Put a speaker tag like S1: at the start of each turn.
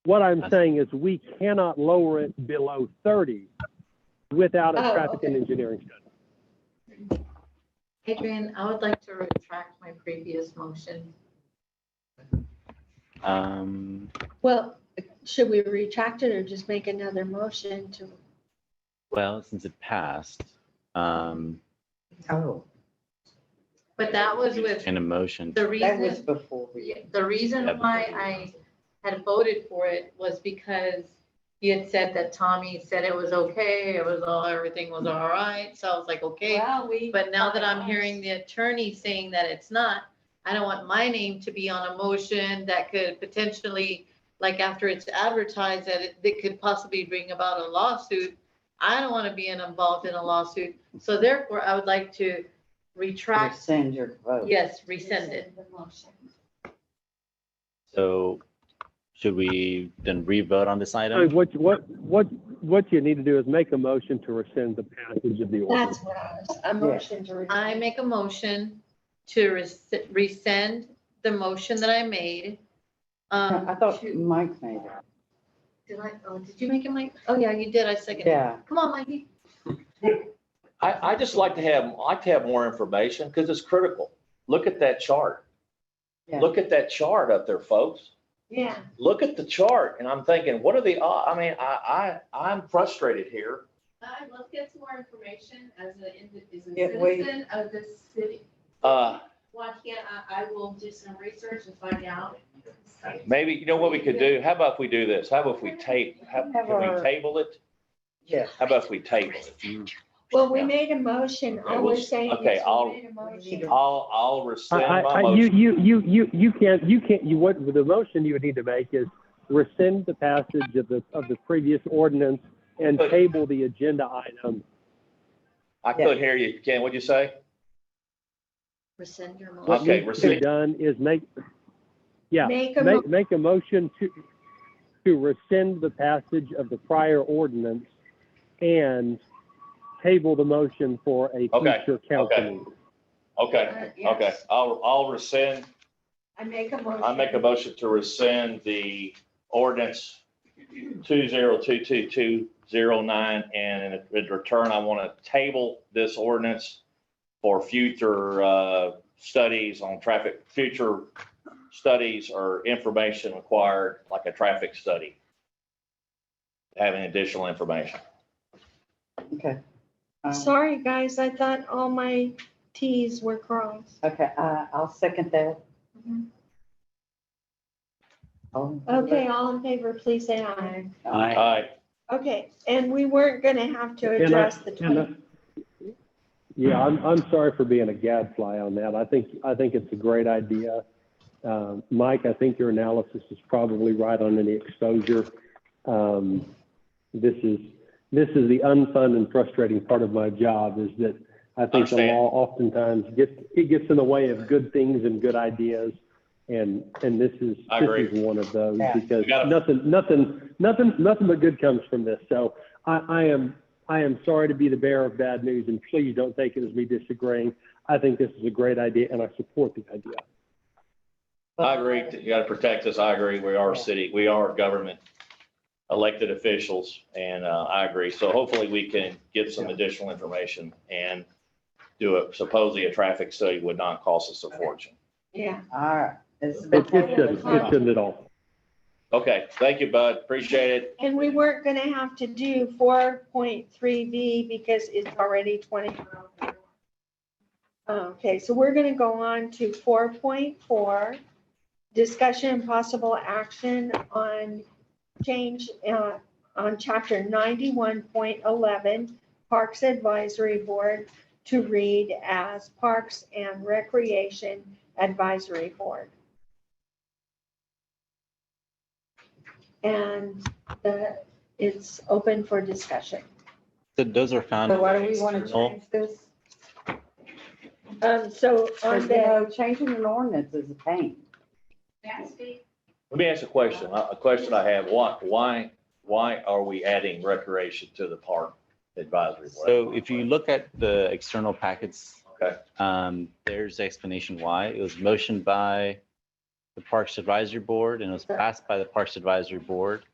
S1: What I'm saying is we cannot lower it below 30 without a
S2: Oh,
S1: traffic and engineering study.
S2: Adrian, I would like to retract my previous motion.
S3: Um,
S4: Well, should we retract it or just make another motion to,
S3: well, since it passed, um,
S5: Oh,
S2: But that was with
S3: in a motion,
S2: the
S5: that was
S2: reason,
S5: before we,
S2: the reason
S3: Yeah.
S2: why I had voted for it was because he had said that Tommy said it was okay, it was all, everything was all right. So I was like, okay.
S6: Well, we.
S2: But now that I'm hearing the attorney saying that it's not, I don't want my name to be on a motion that could potentially, like after it's advertised, that it, that could possibly bring about a lawsuit. I don't want to be involved in a lawsuit. So therefore, I would like to retract,
S5: rescind your vote.
S2: yes, rescind it.
S6: The motion.
S3: so should we then re-vote on this
S1: So
S5: Oh,
S3: item?
S1: What, what, what, what you need to do is make a motion to rescind the passage of the ordinance.
S4: that's what I was, a motion to. retract.
S2: I make a motion to res- rescind the motion that I made. Um,
S5: I thought
S2: to-
S5: Mike made it.
S2: Did I, oh, did you make it, Mike? Oh, yeah, you did. I seconded. it.
S5: Yeah,
S2: Come on, Mikey.
S7: I, I just like to have, I like to have more information because it's critical. Look at that chart.
S5: Yeah.
S7: Look at that chart up there, folks.
S2: Yeah.
S7: Look at the chart and I'm thinking, what are the, o- I mean, I, I, I'm frustrated here.
S6: I will get some more information as a, indi- as a
S5: Yeah, wait.
S6: citizen of this city.
S7: Uh,
S6: Why can't I, I will do some research and find out.
S7: maybe, you know what we could do? How about if we do this? How about if we tape, how, can we table it?
S5: yeah.
S7: How about if we table it?
S4: Well, we made a motion,
S7: Okay,
S4: all
S7: we'll-
S4: we're saying
S7: okay,
S4: is
S7: I'll-
S4: we made a motion.
S7: I'll, I'll rescind
S1: I- I-
S7: my
S1: I- You,
S7: motion.
S1: you, you, you, you can't, you can't, you, what, the motion you would need to make is rescind the passage of the, of the previous ordinance and
S7: But-
S1: table the agenda item.
S7: I couldn't hear you. Ken, what'd you say?
S2: Rescind your motion.
S1: What
S7: Okay,
S1: needs to be
S7: rescind.
S1: done is make, yeah,
S4: Make a
S1: make, make a motion to, to rescind the passage of the prior ordinance and table the motion for a
S7: Okay,
S1: future council
S7: okay.
S1: meeting.
S7: Okay,
S2: Uh,
S7: okay. I'll, I'll rescind
S4: I make a motion.
S7: I make a motion to rescind the ordinance two zero two two two zero nine, and in- in return, I want to table this ordinance for future uh, studies on traffic, future studies or information required, like a traffic study. Having additional information.
S5: Okay. Um,
S4: Sorry, guys, I thought all my Ts were crossed.
S5: Okay, uh, I'll second that.
S2: Mhm.
S5: Oh,
S4: Okay, all in favor, please say aye.
S3: Aye.
S7: Aye.
S4: Okay, and we weren't gonna have to
S1: And I-
S4: address the
S1: and I-
S4: twenty.
S1: Yeah, I'm, I'm sorry for being a gadfly on that. I think, I think it's a great idea. Um, Mike, I think your analysis is probably right on any exposure. Um, this is, this is the unfun and frustrating part of my job is that I think the
S7: Understand.
S1: law oftentimes gets, it gets in the way of good things and good ideas. And, and this is,
S7: I agree.
S1: this is one of those
S5: Yeah.
S1: because
S7: We gotta-
S1: nothing, nothing, nothing, nothing but good comes from this. So I, I am, I am sorry to be the bearer of bad news, and please don't take it as me disagreeing. I think this is a great idea, and I support the idea.
S7: I agree. You got to protect us. I agree. We are a city. We are government elected officials and uh, I agree. So hopefully we can get some additional information and do a supposedly a traffic study would not cost us a fortune.
S4: Yeah,
S5: All right. It's
S1: It,
S5: been
S1: it shouldn't, it shouldn't at all.
S7: Okay, thank you, Bud. Appreciate it.
S4: and we weren't gonna have to do four point three V because it's already twenty. Okay, so we're gonna go on to four point four, discussion and possible action on change, uh, on chapter ninety-one point eleven, Parks Advisory Board to read as Parks and Recreation Advisory Board. And the, it's open for discussion.
S3: So those are found.
S5: So why do we want to
S3: external.
S5: change this?
S4: Um, so
S5: Because,
S4: on
S5: you
S4: the,
S5: know, changing an ordinance is a pain.
S6: That's big.
S7: Let me ask a question. Uh, A a question I have. Why, why, why are we adding recreation to the park advisory? board?
S3: So if you look at the external packets,
S7: Okay.
S3: um, there's the explanation why. It was motioned by the Parks Advisory Board and it was passed by the Parks Advisory Board.